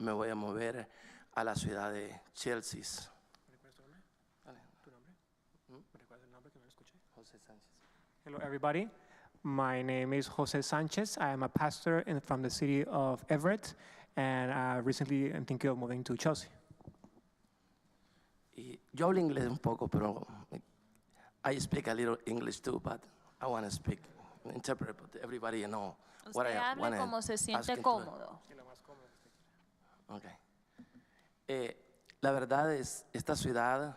me voy a mover a la ciudad de Chelsea. ¿Recuerdas tu nombre? Vale. ¿Tu nombre? ¿Me recuerdas el nombre que no lo escuché? José Sánchez. Hello, everybody. My name is Jose Sanchez. I am a pastor in, from the city of Everett, and uh, recently I'm thinking of moving to Chelsea. Y yo hablo inglés un poco, pero I speak a little English too, but I want to speak, interpret, but everybody know what I Usted hable wanna como se ask siente into- cómodo. Ok. Eh, la verdad es, esta ciudad,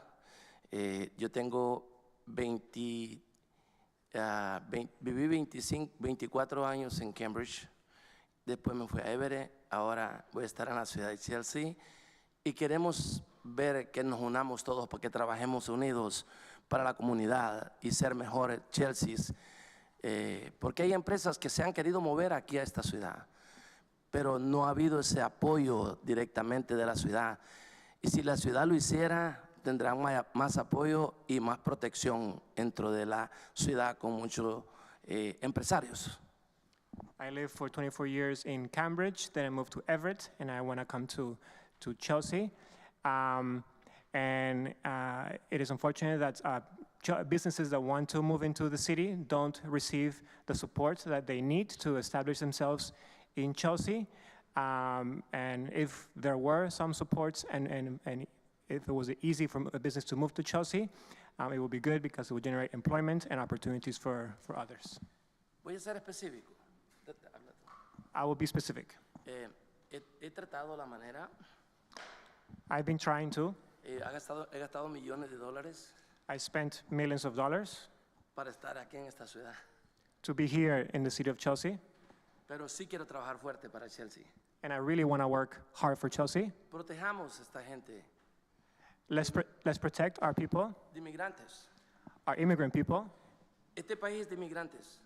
eh, yo tengo 20, ah, vein- viví 25, 24 años en Cambridge, después me fui a Everett, ahora voy a estar en la ciudad de Chelsea y queremos ver que nos unamos todos porque trabajemos unidos para la comunidad y ser mejores Chelsea, eh, porque hay empresas que se han querido mover aquí a esta ciudad pero no ha habido ese apoyo directamente de la ciudad. Y si la ciudad lo hiciera, tendrán ma- más apoyo y más protección dentro de la ciudad con muchos eh, empresarios. I lived for 24 years in Cambridge, then I moved to Everett, and I want to come to, to Chelsea. Um, and uh, it is unfortunate that uh, ch- businesses that want to move into the city don't receive the support that they need to establish themselves in Chelsea. Um, and if there were some supports and, and, and if it was easy for a business to move to Chelsea, um, it would be good because it would generate employment and opportunities for, for others. Voy a ser específico. I will be specific. Eh, he, he tratado la manera, I've been trying to. eh, ha gastado- he gastado millones de dólares I spent millions of dollars para estar aquí en esta ciudad, to be here in the city of Chelsea, pero sí quiero trabajar fuerte para Chelsea. and I really want to work hard for Chelsea. Protejamos a esta gente Let's, pr- let's protect our people, de inmigrantes. our immigrant people. Este país es de inmigrantes.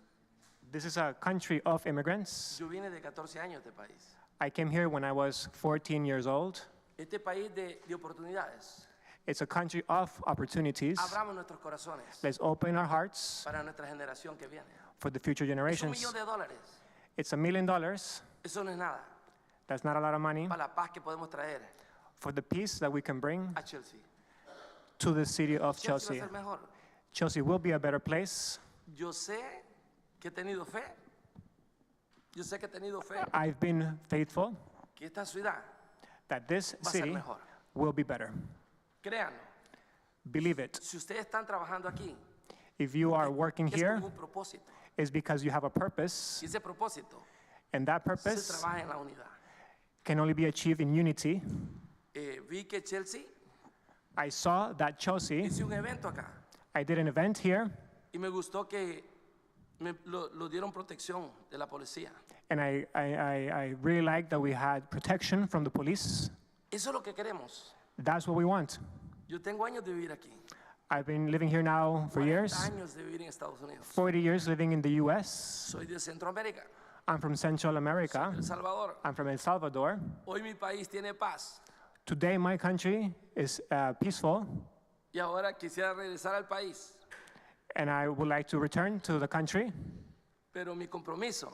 This is a country of immigrants. Yo vine de 14 años de este país. I came here when I was 14 years old. Este país de, de oportunidades. It's a country of opportunities. Abramos nuestros corazones Let's open our hearts para nuestra generación que viene. for the future Es un generations. millón de dólares. It's a million dollars. Eso no es nada. That's not a lot of money Para la paz que podemos traer for the peace that we can bring a Chelsea. to the city of Chelsea Chelsea. va a ser mejor. Chelsea will be a better place. Yo sé que he tenido fe. Yo sé que he tenido fe I've been faithful que esta ciudad, that this Va a ser city mejor. will be better. créanlo, Believe it. si ustedes están trabajando aquí, If you are working es here, con un propósito. it's because you have a purpose, Y ese propósito and that se purpose trabaja en la unidad. can only be achieved in unity. Eh, vi que Chelsea I saw that Chelsea, hizo un evento acá I did an event here, y me gustó que me, lo- lo dieron protección de la policía. and I, I, I, I really liked that we had protection from the police. Eso es lo que queremos. That's what we want. Yo tengo años de vivir aquí. I've been living here now for 40 years, años de vivir en Estados Unidos. 40 years living in the US. Soy de Centroamérica, I'm from Central America, El Salvador. I'm from El Salvador. Hoy mi país tiene paz Today, my country is uh, peaceful, y ahora quisiera regresar al país, and I would like to return to the country, pero mi compromiso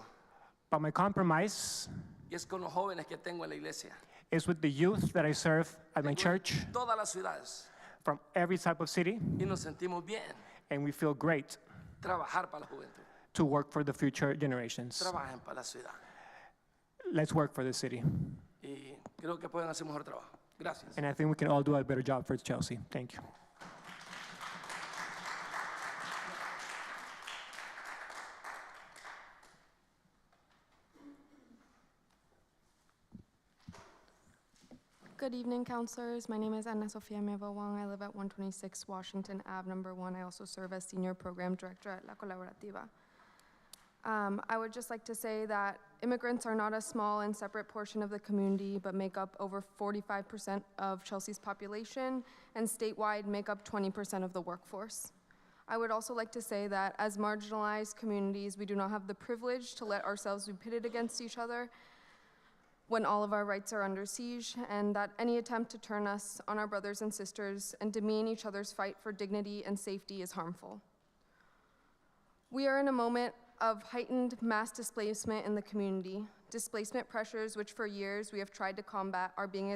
but my compromise es con los jóvenes que tengo en la iglesia. is with the youth that I serve at my church Todas las ciudades from every type of city, y nos sentimos bien and we feel great trabajar para la juventud. to work for the future generations. Trabajen para la ciudad Let's work for the city, y creo que pueden hacer mejor trabajo. Gracias. and I think we can all do a better job for Chelsea. Thank you. Good evening, counselors. My name is Anna Sofia Meva Wang. I live at 126 Washington Ave, number one. I also serve as Senior Program Director at La Colaborativa. Um, I would just like to say that immigrants are not a small and separate portion of the community, but make up over 45% of Chelsea's population and statewide make up 20% of the workforce. I would also like to say that as marginalized communities, we do not have the privilege to let ourselves be pitted against each other when all of our rights are under siege, and that any attempt to turn us on our brothers and sisters and demean each other's fight for dignity and safety is harmful. We are in a moment of heightened mass displacement in the community. Displacement pressures, which for years we have tried to combat, are being